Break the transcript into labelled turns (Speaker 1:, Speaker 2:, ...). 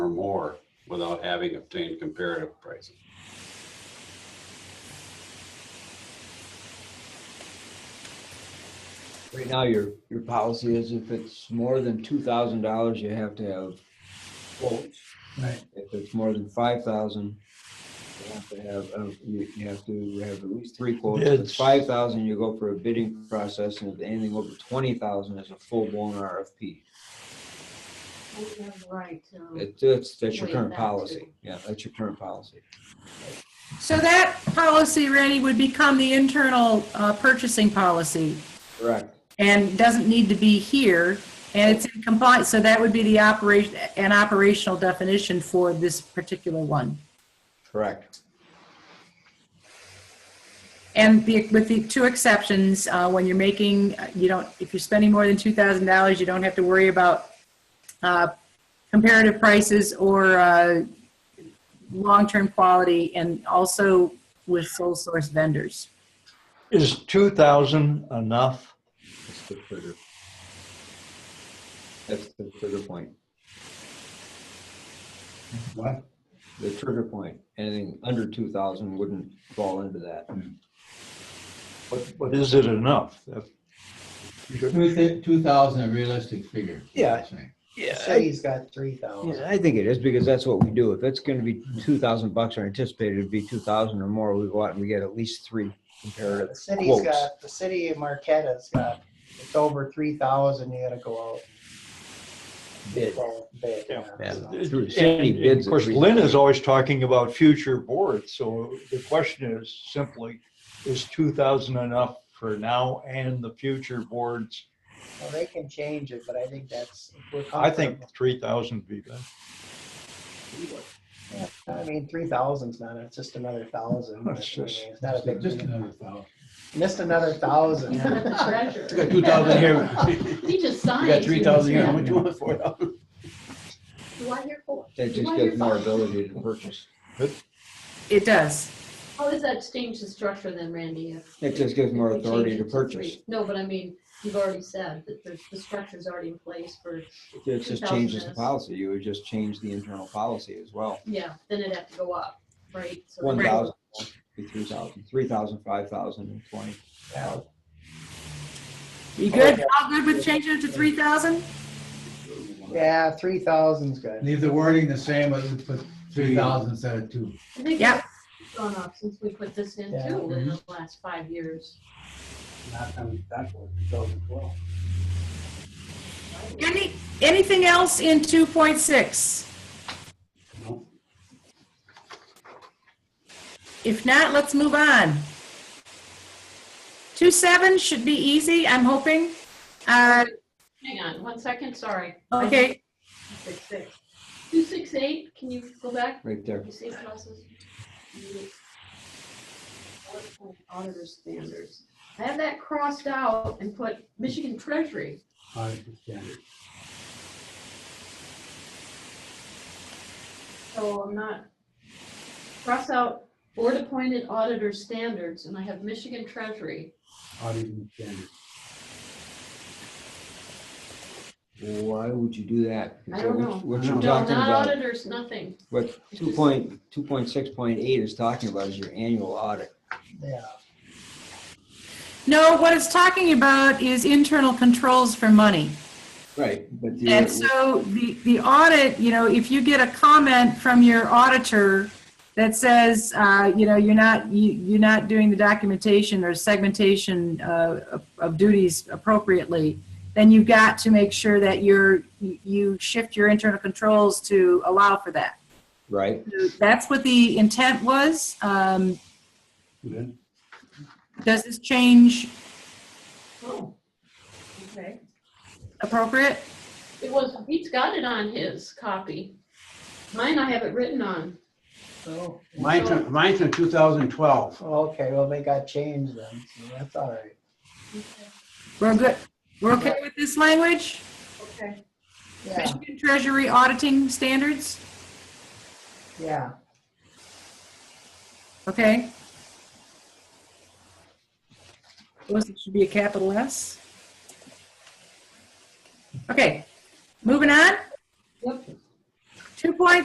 Speaker 1: more without having obtained comparative prices.
Speaker 2: Right now, your, your policy is if it's more than two thousand dollars, you have to have quotes.
Speaker 1: Right.
Speaker 2: If it's more than five thousand, you have to have, uh, you, you have to have at least three quotes. If it's
Speaker 3: Bids.
Speaker 2: five thousand, you go for a bidding process, and if anything over twenty thousand is a full-blown RFP.
Speaker 4: We have the right to.
Speaker 2: It- That's, that's your
Speaker 4: Wait,
Speaker 2: current
Speaker 4: that
Speaker 2: policy.
Speaker 4: too.
Speaker 2: Yeah, that's your current policy.
Speaker 5: So that policy, Randy, would become the internal uh, purchasing policy
Speaker 2: Correct.
Speaker 5: and doesn't need to be here. And it's in compliance, so that would be the operation, an operational definition for this particular one.
Speaker 2: Correct.
Speaker 5: And the- with the two exceptions, uh, when you're making, uh, you don't, if you're spending more than $2,000, you don't have to worry about uh, comparative prices or uh, long-term quality and also with sole source vendors.
Speaker 3: Is 2,000 enough?
Speaker 2: That's the trigger. That's the trigger point.
Speaker 3: What?
Speaker 2: The trigger point. Anything under two thousand wouldn't fall into that.
Speaker 3: But, but is it enough?
Speaker 6: Two, two thousand a realistic figure. is what
Speaker 7: Yeah.
Speaker 6: you're saying.
Speaker 7: Say he's got three
Speaker 2: Yeah,
Speaker 7: thousand.
Speaker 2: I think it is because that's what we do. If it's gonna be two thousand bucks or anticipated to be two thousand or more, we go out and we get at least three
Speaker 7: The
Speaker 2: comparative
Speaker 7: city's
Speaker 2: quotes.
Speaker 7: got, the city of Marquette's got, it's over three thousand, you gotta go out.
Speaker 2: Bid.
Speaker 7: Well, Bid.
Speaker 3: Yeah.
Speaker 7: yeah, so.
Speaker 2: Through the city
Speaker 3: And
Speaker 2: bids
Speaker 3: Of course,
Speaker 2: at least.
Speaker 3: Lynn is always talking about future boards, so the question is simply, is 2,000 enough for now and the future boards?
Speaker 7: Well, they can change it, but I think that's, if we're
Speaker 3: I think
Speaker 7: comfortable.
Speaker 3: 3,000 would be better.
Speaker 7: I mean, three thousand's not, it's just another thousand.
Speaker 3: That's
Speaker 7: It's not
Speaker 3: just-
Speaker 7: a big,
Speaker 6: Just
Speaker 7: deal.
Speaker 6: another thousand.
Speaker 7: just another thousand.
Speaker 4: Not the treasurer.
Speaker 6: You got two thousand here.
Speaker 4: He just
Speaker 6: You
Speaker 4: signed.
Speaker 6: got three thousand here. How much
Speaker 4: Do
Speaker 6: you want for it?
Speaker 4: I hear four?
Speaker 2: They
Speaker 4: Do
Speaker 2: just
Speaker 4: I
Speaker 2: get
Speaker 4: hear
Speaker 2: more
Speaker 4: five?
Speaker 2: ability to purchase.
Speaker 5: It does.
Speaker 4: How does that change the structure then, Randy? if-
Speaker 2: It just gives more
Speaker 4: if we
Speaker 2: authority
Speaker 4: change
Speaker 2: to
Speaker 4: it
Speaker 2: purchase.
Speaker 4: three? No, but I mean, you've already said that the, the structure's already in place for,
Speaker 2: It just
Speaker 4: 2,000
Speaker 2: changes the
Speaker 4: is-
Speaker 2: policy. You would just change the internal policy as well.
Speaker 4: yeah, then it'd have to go up, right? So-
Speaker 2: One thousand, three thousand, three thousand, five thousand and twenty.
Speaker 7: Yeah.
Speaker 5: You good? All good with changing it to 3,000?
Speaker 7: Yeah, three thousand's good.
Speaker 6: Leave the wording the same, but put three thousand instead of two.
Speaker 4: I think
Speaker 5: Yeah.
Speaker 4: it's gone up since we put this in
Speaker 7: Yeah.
Speaker 4: too, in the last five years.
Speaker 5: Any, anything else in 2.6? If not, let's move on. 2.7 should be easy, I'm hoping. Uh,
Speaker 4: Hang on, one second, sorry.
Speaker 5: Okay,
Speaker 4: Six, six. Two, six, eight, can you go back?
Speaker 2: Right there.
Speaker 4: You see classes? Auditor standards. I have that crossed out and put Michigan Treasury. So I'm not, cross out board appointed auditor standards and I have Michigan Treasury.
Speaker 2: Why would you do that?
Speaker 4: I don't know.
Speaker 2: What
Speaker 4: No,
Speaker 2: you're
Speaker 4: not
Speaker 2: talking about,
Speaker 4: auditors, nothing.
Speaker 2: what
Speaker 4: It's
Speaker 2: two
Speaker 4: just-
Speaker 2: point, two point six point eight is talking about is your annual audit.
Speaker 7: Yeah.
Speaker 5: no, what it's talking about is internal controls for money.
Speaker 2: Right. But
Speaker 5: And
Speaker 2: the,
Speaker 5: so the, the audit, you know, if you get a comment from your auditor that says, uh, you know, you're not, you, you're not doing the documentation or segmentation, uh, of- of duties appropriately, then you've got to make sure that you're, you- you shift your internal controls to allow for that.
Speaker 2: right,
Speaker 5: That's what the intent was. Um, does this change
Speaker 4: Oh, Okay.
Speaker 5: appropriate?
Speaker 4: It was, he's got it on his copy. Mine I have it written on.
Speaker 7: So,
Speaker 8: Mine's, from- mine's from 2012.
Speaker 7: Oh, okay, well, they got changed then, so that's all right.
Speaker 5: We're good, we're okay with this language?
Speaker 4: Okay.
Speaker 7: Yeah,
Speaker 5: Michigan Treasury auditing standards?
Speaker 7: yeah.
Speaker 5: Okay. Those should be a capital S. Okay, moving on.
Speaker 4: Yep.
Speaker 5: Two point